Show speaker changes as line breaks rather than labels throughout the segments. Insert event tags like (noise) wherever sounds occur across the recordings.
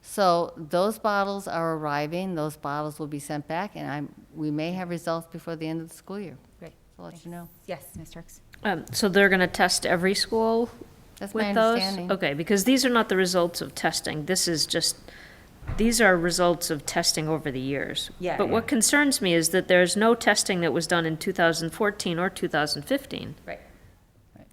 So those bottles are arriving, those bottles will be sent back, and I'm, we may have results before the end of the school year.
Great.
I'll let you know.
Yes, Ms. Turks.
Um, So they're going to test every school
That's my
with those?
understanding.
Okay, because these are not the results of testing. This is just, these are results of testing over the years.
Yeah.
But what concerns me is that there's no testing that was done in 2014 or 2015.
Right. Right.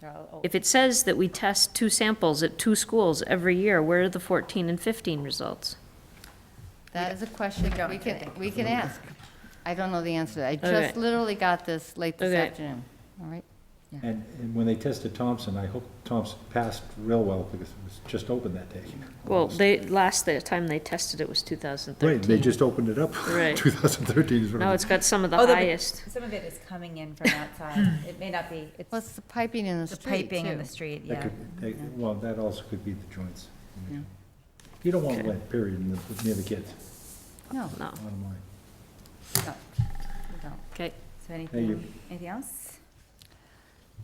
They're all old.
If it says that we test two samples at two schools every year, where are the 14 and 15 results?
That is a question
don't
we can,
today.
we can ask. I don't know the answer. to that. I
Okay.
just literally got this late this
Okay.
afternoon, all right?
And, and when they tested Thompson, I hope Thompson passed real well because it was just open that day.
Well, they, last the time they tested it was 2013.
Right, they just opened it up. (laughs)
Right.
2013 is. when
Now
it-
it's got some of the
Oh, the-
highest.
Some of it is coming in from outside. It may not be, it's
What's the piping in the
the
street,
piping in
too?
the street,
that
yeah.
could- they- Well, that also could be the joints.
Yeah.
You don't want
Okay. Oh.
lead, period, in the- near the kids,
No,
No,
bottom line.
no, no.
okay.
So anything,
you-
anything else?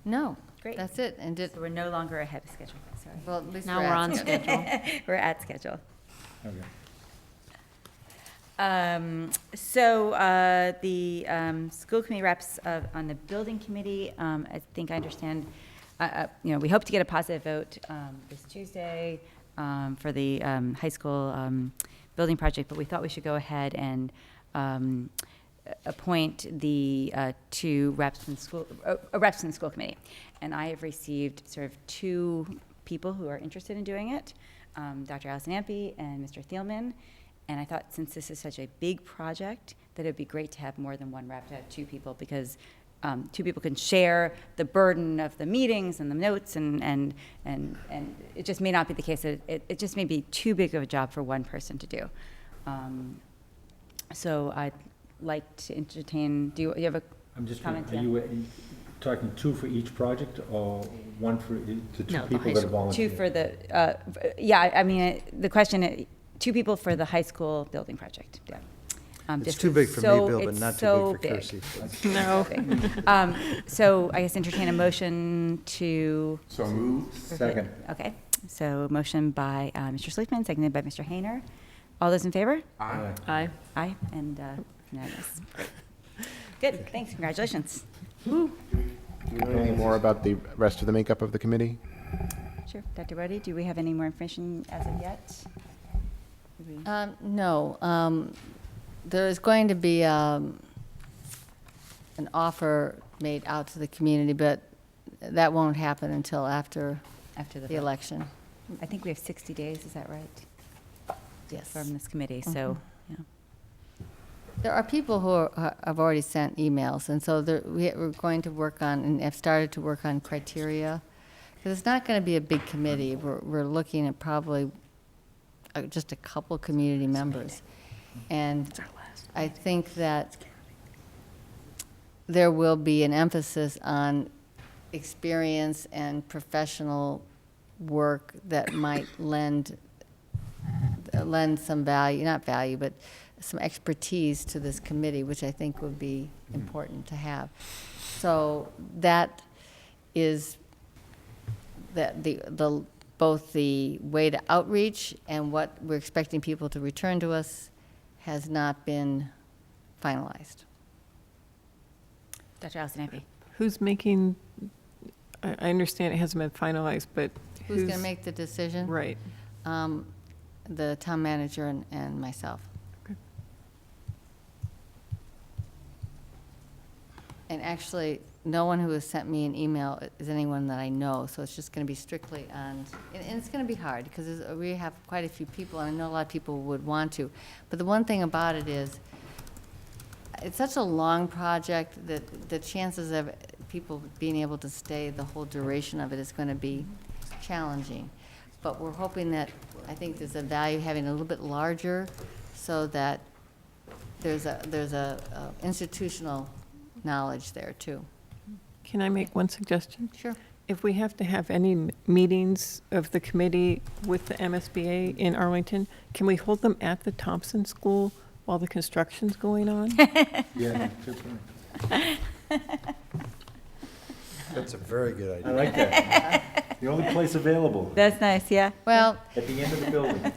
No,
Great.
that's it, and did,
So we're no longer ahead of schedule, sorry.
well, at least
Now we're on
asking.
schedule.
We're at schedule.
Okay.
Um, So uh, the um, school committee reps of- on the building committee, um, I think I understand, uh, uh, you know, we hope to get a positive vote um, this Tuesday um, for the um, high school um, building project, but we thought we should go ahead and um, a- appoint the uh, two reps in school, uh, uh, reps in the school committee. And I have received sort of two people who are interested in doing it, um, Dr. Allison Ampe and Mr. Thielman. And I thought since this is such a big project, that it'd be great to have more than one rep, to have two people, because um, two people can share the burden of the meetings and the notes, and, and, and, and it just may not be the case. that It, it just may be too big of a job for one person to do. Um, so I'd like to entertain, do you, you have a,
I'm just,
Comment,
wondering, are you uh, talking two for each project or one for e- the two
No, the high
people that
school.
volunteer?
two for the, uh, f- yeah, I- I mean, I- the question, uh, two people for the high school building project, yeah. Um,
It's
just
too
'cause
big for
so-
me, Bill, but
it's
not
so
too big for
big.
Kirsty.
(laughs) No. Um, so I guess entertain a motion to.
So moved. Second.
Okay, so motion by uh, Mr. Sleepman, seconded by Mr. Hayner. All those in favor?
Aye.
Aye.
Aye, and uh, unanimous. Great. Good, thanks, congratulations.
Do you know anything more about the rest of the makeup of the committee?
Sure, Dr. Bodie, do we have any more information as of yet?
Um, no, um, there is going to be, um, an offer made out to the community, but that won't happen until after
After
the
the,
election,
I think we have 60 days, is that right,
yes.
from this committee, so, yeah.
There are people who are- have already sent emails, and so there- we- we're going to work on, and have started to work on criteria. Because it's not going to be a big committee. We're we're looking at probably uh, just a couple community members. And I think that there will be an emphasis on experience and professional work that might lend, lend some value, not value, but some expertise to this committee, which I think would be important to have. So that is, that the, the, both the way to outreach and what we're expecting people to return to us has not been finalized.
Dr. Allison Ampe?
Who's making, I I understand it hasn't been finalized, but who's?
Who's going to make the decision?
Right.
Um, The town manager and, and myself.
Okay.
And actually, no one who has sent me an email is anyone that I know, so it's just going to be strictly on, and and it's going to be hard, because we have quite a few people, and I know a lot of people would want to. But the one thing about it is, it's such a long project that the chances of people being able to stay the whole duration of it is going to be challenging. But we're hoping that, I think there's a value having a little bit larger so that there's a, there's a a institutional knowledge there too.
Can I make one suggestion?
Sure.
If we have to have any m- meetings of the committee with the MSBA in Arlington, can we hold them at the Thompson School while the construction's going on?
(laughs)
Yeah, good point.
That's a very good idea.
I
(laughs)
like that. The only place available,
That's nice, yeah.
Well,
at the end of the building.